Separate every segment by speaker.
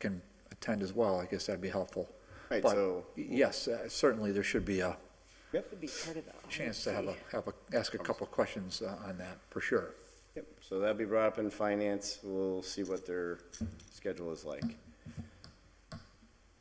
Speaker 1: can attend as well, I guess that'd be helpful.
Speaker 2: Right,
Speaker 1: But,
Speaker 2: so-
Speaker 1: Yes, uh, certainly there should be a
Speaker 3: Would be part of the.
Speaker 1: chance to have a, have a, ask a couple of questions uh, on that, for sure.
Speaker 2: Yep, so that'll be brought up in finance, we'll see what their schedule is like.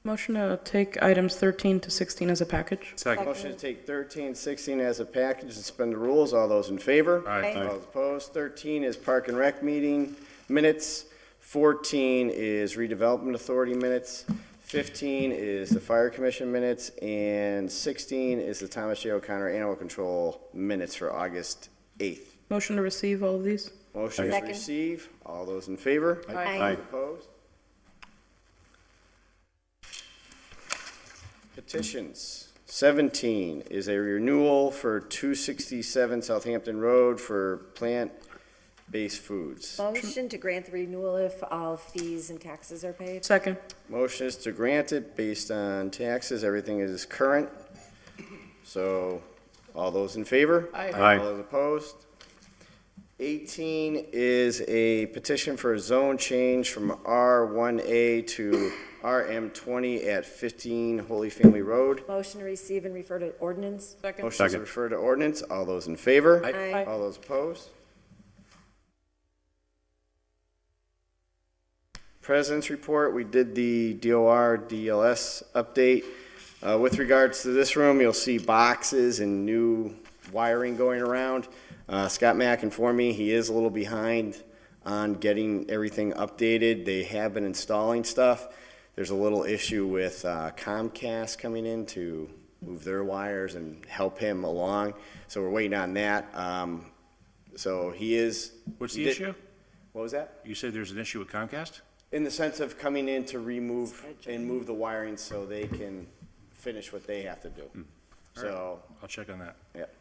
Speaker 4: Motion to take items 13 to 16 as a package.
Speaker 5: Second.
Speaker 2: Motion to take 13, 16 as a package and suspend the rules, all those in favor?
Speaker 5: Aye. Aye.
Speaker 2: All those opposed, 13 is Park and Rec meeting minutes, 14 is redevelopment authority minutes, 15 is the fire commission minutes, and 16 is the Thomas J. O'Connor Animal Control minutes for August 8th.
Speaker 4: Motion to receive all of these.
Speaker 2: Motion is
Speaker 3: Second.
Speaker 2: receive, all those in favor?
Speaker 3: Aye.
Speaker 2: Opposed? Petitions. 17 is a renewal for 267 Southampton Road for plant-based foods.
Speaker 3: Motion to grant the renewal if all fees and taxes are paid.
Speaker 4: Second.
Speaker 2: Motion is to grant it based on taxes, everything is current. So, all those in favor?
Speaker 4: Aye.
Speaker 5: Aye.
Speaker 2: All those opposed? 18 is a petition for a zone change from R1A to RM20 at 15 Holy Family Road.
Speaker 3: Motion to receive and refer to ordinance.
Speaker 4: Second.
Speaker 2: Motion is to
Speaker 5: Second.
Speaker 2: refer to ordinance, all those in favor?
Speaker 3: Aye.
Speaker 2: All those opposed? President's report, we did the DOR, DLS update. Uh, With regards to this room, you'll see boxes and new wiring going around. Uh, Scott Mack informed me he is a little behind on getting everything updated. They have been installing stuff. There's a little issue with uh, Comcast coming in to move their wires and help him along, so we're waiting on that. Um, So he is.
Speaker 5: What's
Speaker 2: he
Speaker 5: the
Speaker 2: did-
Speaker 5: issue?
Speaker 2: What was that?
Speaker 5: You said there's an issue with Comcast?
Speaker 2: In the sense of coming in to remove and move the wiring so they can finish what they have to do. So,
Speaker 5: I'll check on that.
Speaker 2: yep.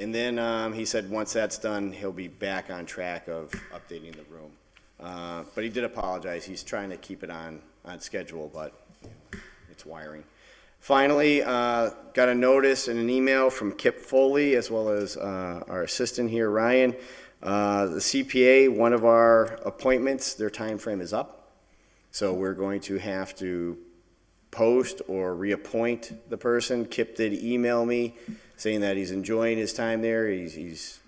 Speaker 2: And then, um, he said, once that's done, he'll be back on track of updating the room. Uh, but he did apologize. He's trying to keep it on, on schedule, but you know, it's wiring. Finally, uh, got a notice and an email from Kip Foley, as well as, uh, our assistant here, Ryan. Uh, the CPA, one of our appointments, their time frame is up. So we're going to have to post or reappoint the person. Kip did email me saying that he's enjoying his time there. He's, he's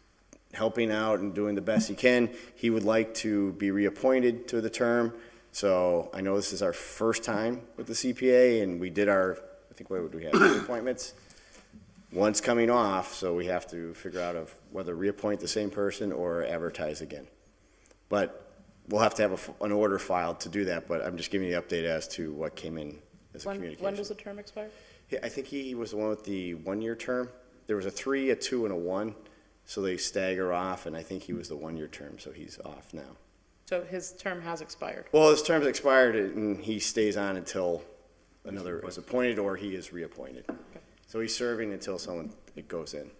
Speaker 2: helping out and doing the best he can. He would like to be reappointed to the term. So I know this is our first time with the CPA and we did our, I think, what would we have, two appointments? One's coming off, so we have to figure out of whether reappoint the same person or advertise again. But we'll have to have a f an order filed to do that, but I'm just giving you the update as to what came in as a
Speaker 4: When, when does
Speaker 2: communication.
Speaker 4: the term expire?
Speaker 2: Yeah, I think he was the one with the one-year term. There was a three, a two, and a one, so they stagger off, and I think he was the one-year term, so he's off now.
Speaker 4: So his term has expired.
Speaker 2: Well, his term's expired, and he stays on until another is appointed or he is reappointed. So he's serving until someone, it goes in.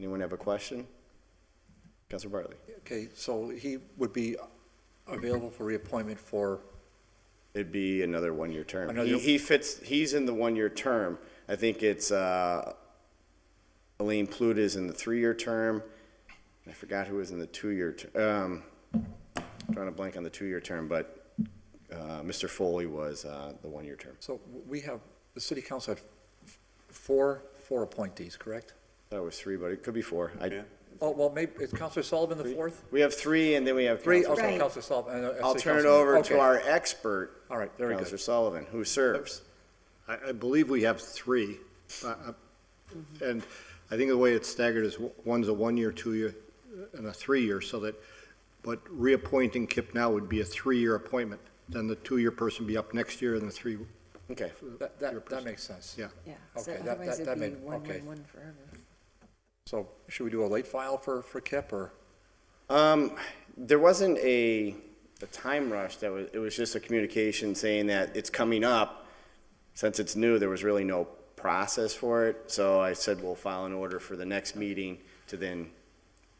Speaker 2: Anyone have a question? Counselor Bartley?
Speaker 1: Okay, so he would be available for reappointment for,
Speaker 2: It'd be another one-year term.
Speaker 1: Another-
Speaker 2: He, he fits, he's in the one-year term. I think it's, uh, Elaine Pluta is in the three-year term. I forgot who was in the two-year, ter- um, drawing a blank on the two-year term, but, uh, Mr. Foley was, uh, the one-year term.
Speaker 1: so we have, the city council had f- four, four appointees, correct?
Speaker 2: That was three, but it could be four. I,
Speaker 1: Oh, well, maybe, is Counselor Sullivan the fourth?
Speaker 2: we have three, and then we have.
Speaker 1: Three,
Speaker 2: Counselor-
Speaker 1: okay,
Speaker 3: Right.
Speaker 1: Counselor Sullivan. and, uh,
Speaker 2: I'll
Speaker 1: city
Speaker 2: turn it
Speaker 1: councilman.
Speaker 2: over to
Speaker 1: Okay.
Speaker 2: our expert,
Speaker 1: All right, very
Speaker 2: Counselor
Speaker 1: good.
Speaker 2: Sullivan, who serves.
Speaker 6: I, I believe we have three. Uh, uh, And I think the way it's staggered is w- one's a one-year, two-year, and a three-year, so that, but reappointing Kip now would be a three-year appointment. Then the two-year person be up next year and the three,
Speaker 2: Okay.
Speaker 1: That,
Speaker 6: your
Speaker 1: that, that
Speaker 6: person.
Speaker 1: makes sense.
Speaker 6: yeah.
Speaker 3: Yeah, so
Speaker 1: Okay, that-
Speaker 3: otherwise
Speaker 1: that- that
Speaker 3: it'd be
Speaker 1: made-
Speaker 3: one,
Speaker 1: okay.
Speaker 3: one, one forever.
Speaker 1: So should we do a late file for, for Kip or?
Speaker 2: Um, there wasn't a, a time rush that was, it was just a communication saying that it's coming up. Since it's new, there was really no process for it, so I said we'll file an order for the next meeting to then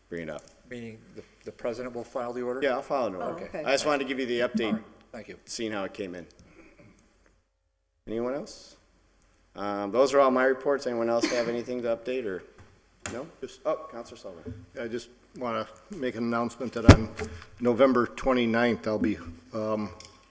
Speaker 2: bring it up.
Speaker 1: Meaning the, the president will file the order?
Speaker 2: Yeah, I'll file an
Speaker 3: Oh,
Speaker 2: order.
Speaker 3: okay.
Speaker 2: I just wanted to give you the update,
Speaker 1: Thank you.
Speaker 2: seeing how it came in. Anyone else? Um, those are all my reports. Anyone else have anything to update or? No?
Speaker 6: Just-
Speaker 2: Oh, Counselor Sullivan.
Speaker 6: I just want to make an announcement that on November 29th, I'll be um,